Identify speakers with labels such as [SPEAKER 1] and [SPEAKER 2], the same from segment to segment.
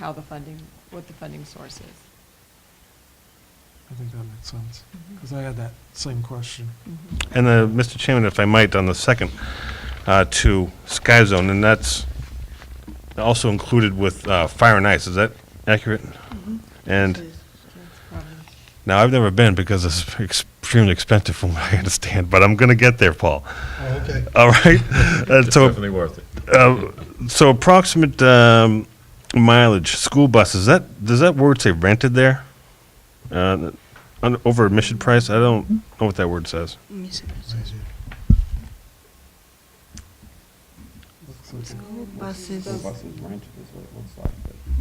[SPEAKER 1] how the funding, what the funding source is.
[SPEAKER 2] I think that makes sense, because I had that same question.
[SPEAKER 3] And uh Mr. Chairman, if I might, on the second, uh, to Sky Zone, and that's also included with uh, Fire and Ice, is that accurate? And
[SPEAKER 1] That's probably-
[SPEAKER 3] now, I've never been because it's extremely expensive from what I understand, but I'm going to get there, Paul.
[SPEAKER 4] Oh, okay.
[SPEAKER 3] All right? Uh, So
[SPEAKER 5] Definitely worth it.
[SPEAKER 3] uh, so approximate um, mileage, school buses, that, does that word say rented there? Uh, on- Over admission price? I don't know what that word says.
[SPEAKER 2] Looks like it.
[SPEAKER 6] School buses,
[SPEAKER 1] School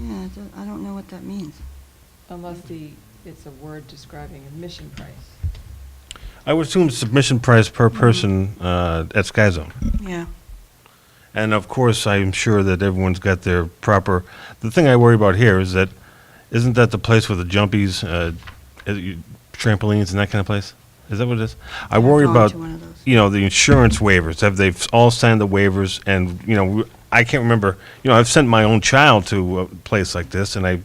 [SPEAKER 6] yeah,
[SPEAKER 1] bus-
[SPEAKER 6] I don't- I don't know what that means.
[SPEAKER 1] Unless the, it's a word describing admission price.
[SPEAKER 3] I would assume submission price per person uh, at Sky Zone.
[SPEAKER 6] Yeah.
[SPEAKER 3] And of course, I'm sure that everyone's got their proper. The thing I worry about here is that, isn't that the place with the jumpies, uh, uh, you- trampolines, and that kind of place? Is that what it is? I worry
[SPEAKER 6] gone
[SPEAKER 3] about,
[SPEAKER 6] to one of those.
[SPEAKER 3] you know, the insurance waivers. Have they all signed the waivers? And you know, w- I can't remember. You know, I've sent my own child to a place like this, and I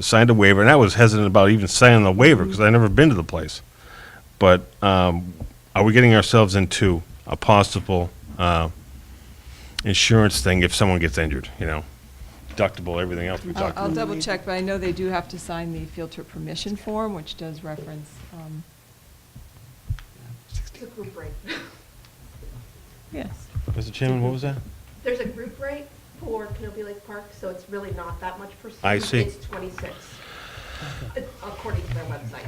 [SPEAKER 3] signed a waiver, and I was hesitant about even signing the waiver because I'd never been to the place. But um, are we getting ourselves into a possible? Uh, insurance thing if someone gets injured, you know, deductible, everything else
[SPEAKER 1] I'll,
[SPEAKER 3] we talked
[SPEAKER 1] I'll
[SPEAKER 3] about.
[SPEAKER 1] double check, but I know they do have to sign the field trip permission form, which does reference, um,
[SPEAKER 7] The group rate.
[SPEAKER 1] yes.
[SPEAKER 3] Mr. Chairman, what was that?
[SPEAKER 7] There's a group rate for Canopy Lake Park, so it's really not that much per student.
[SPEAKER 3] I see.
[SPEAKER 7] It's 26, It's according to their website.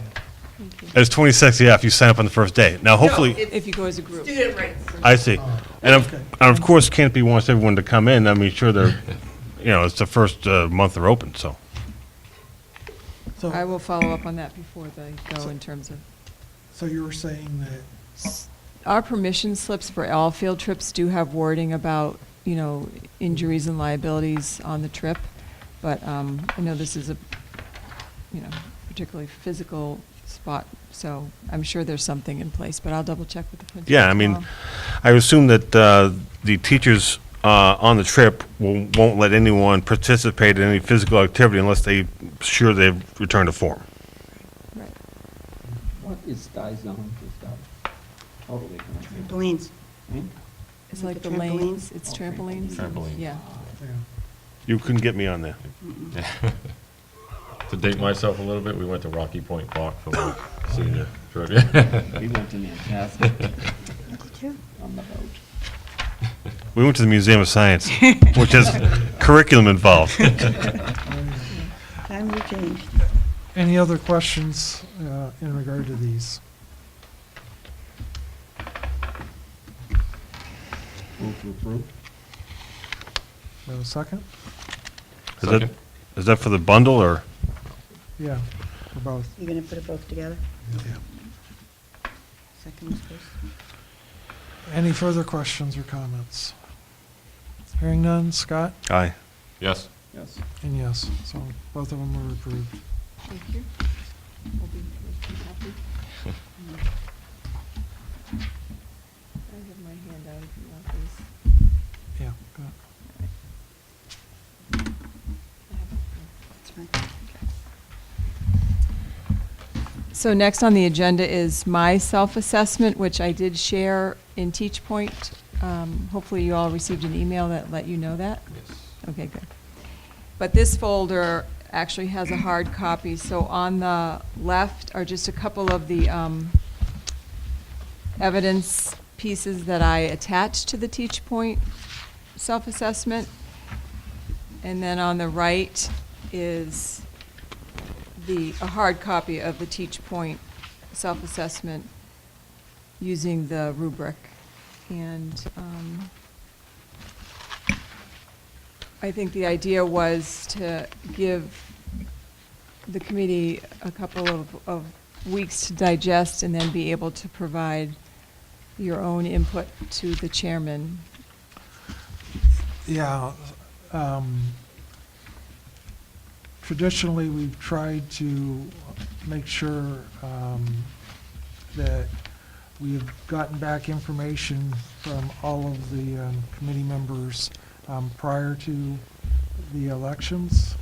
[SPEAKER 3] It's 26, yeah, if you sign up on the first day. Now,
[SPEAKER 7] No,
[SPEAKER 3] hopefully,
[SPEAKER 7] it's
[SPEAKER 1] If you go as a group.
[SPEAKER 7] Student rates.
[SPEAKER 3] I see. And of, and of course, Canopy wants everyone to come in. I mean, sure, they're, you know, it's the first uh, month they're open, so.
[SPEAKER 1] I
[SPEAKER 4] So,
[SPEAKER 1] will follow up on that before they go in terms of,
[SPEAKER 4] so you were saying that,
[SPEAKER 1] our permission slips for all field trips do have wording about, you know, injuries and liabilities on the trip, but um, I know this is a, you know, particularly physical spot, so I'm sure there's something in place, but I'll double check with the principal.
[SPEAKER 3] Yeah, I mean,
[SPEAKER 1] tomorrow.
[SPEAKER 3] I assume that uh, the teachers uh, on the trip will- won't let anyone participate in any physical activity unless they, sure they've returned to form.
[SPEAKER 1] Right.
[SPEAKER 8] What is Sky Zone? Is that totally connected?
[SPEAKER 6] Trampolines.
[SPEAKER 8] Hmm?
[SPEAKER 1] It's
[SPEAKER 6] Is it
[SPEAKER 1] like the
[SPEAKER 6] the
[SPEAKER 1] lanes,
[SPEAKER 6] trampolines?
[SPEAKER 1] it's
[SPEAKER 8] Oh,
[SPEAKER 1] trampolines.
[SPEAKER 5] trampolines.
[SPEAKER 1] Yeah.
[SPEAKER 4] yeah,
[SPEAKER 3] You couldn't get me on there.
[SPEAKER 5] To date myself a little bit, we went to Rocky Point Park for my senior trivia.
[SPEAKER 8] We went to Nantasket on the boat.
[SPEAKER 3] We went to the Museum of Science, which has curriculum involved.
[SPEAKER 6] Times have changed.
[SPEAKER 2] Any other questions uh, in regard to these?
[SPEAKER 8] Move to approve?
[SPEAKER 2] Do I have a second?
[SPEAKER 3] Is that,
[SPEAKER 5] Second.
[SPEAKER 3] is that for the bundle or?
[SPEAKER 2] Yeah, for both.
[SPEAKER 6] You're going to put it both together? Second is first.
[SPEAKER 2] Any further questions or comments? Hearing none, Scott?
[SPEAKER 3] Aye.
[SPEAKER 5] Yes.
[SPEAKER 8] Yes.
[SPEAKER 2] And yes, so both of them were approved.
[SPEAKER 1] Thank you. We'll be- we'll be happy. I have my handout if you want this.
[SPEAKER 2] Yeah. go ahead.
[SPEAKER 1] I have it.
[SPEAKER 6] That's fine.
[SPEAKER 1] So next on the agenda is my self-assessment, which I did share in Teach Point. Um, Hopefully you all received an email that let you know that. Okay, good. But this folder actually has a hard copy, so on the left are just a couple of the um, evidence pieces that I attached to the Teach Point self-assessment. And then on the right is the, a hard copy of the Teach Point self-assessment using the rubric. And um, I think the idea was to give the committee a couple of, of weeks to digest and then be able to provide your own input to the chairman.
[SPEAKER 2] Yeah. um, Traditionally, we've tried to make sure um, that we've gotten back information from all of the um, committee members um, prior to the elections.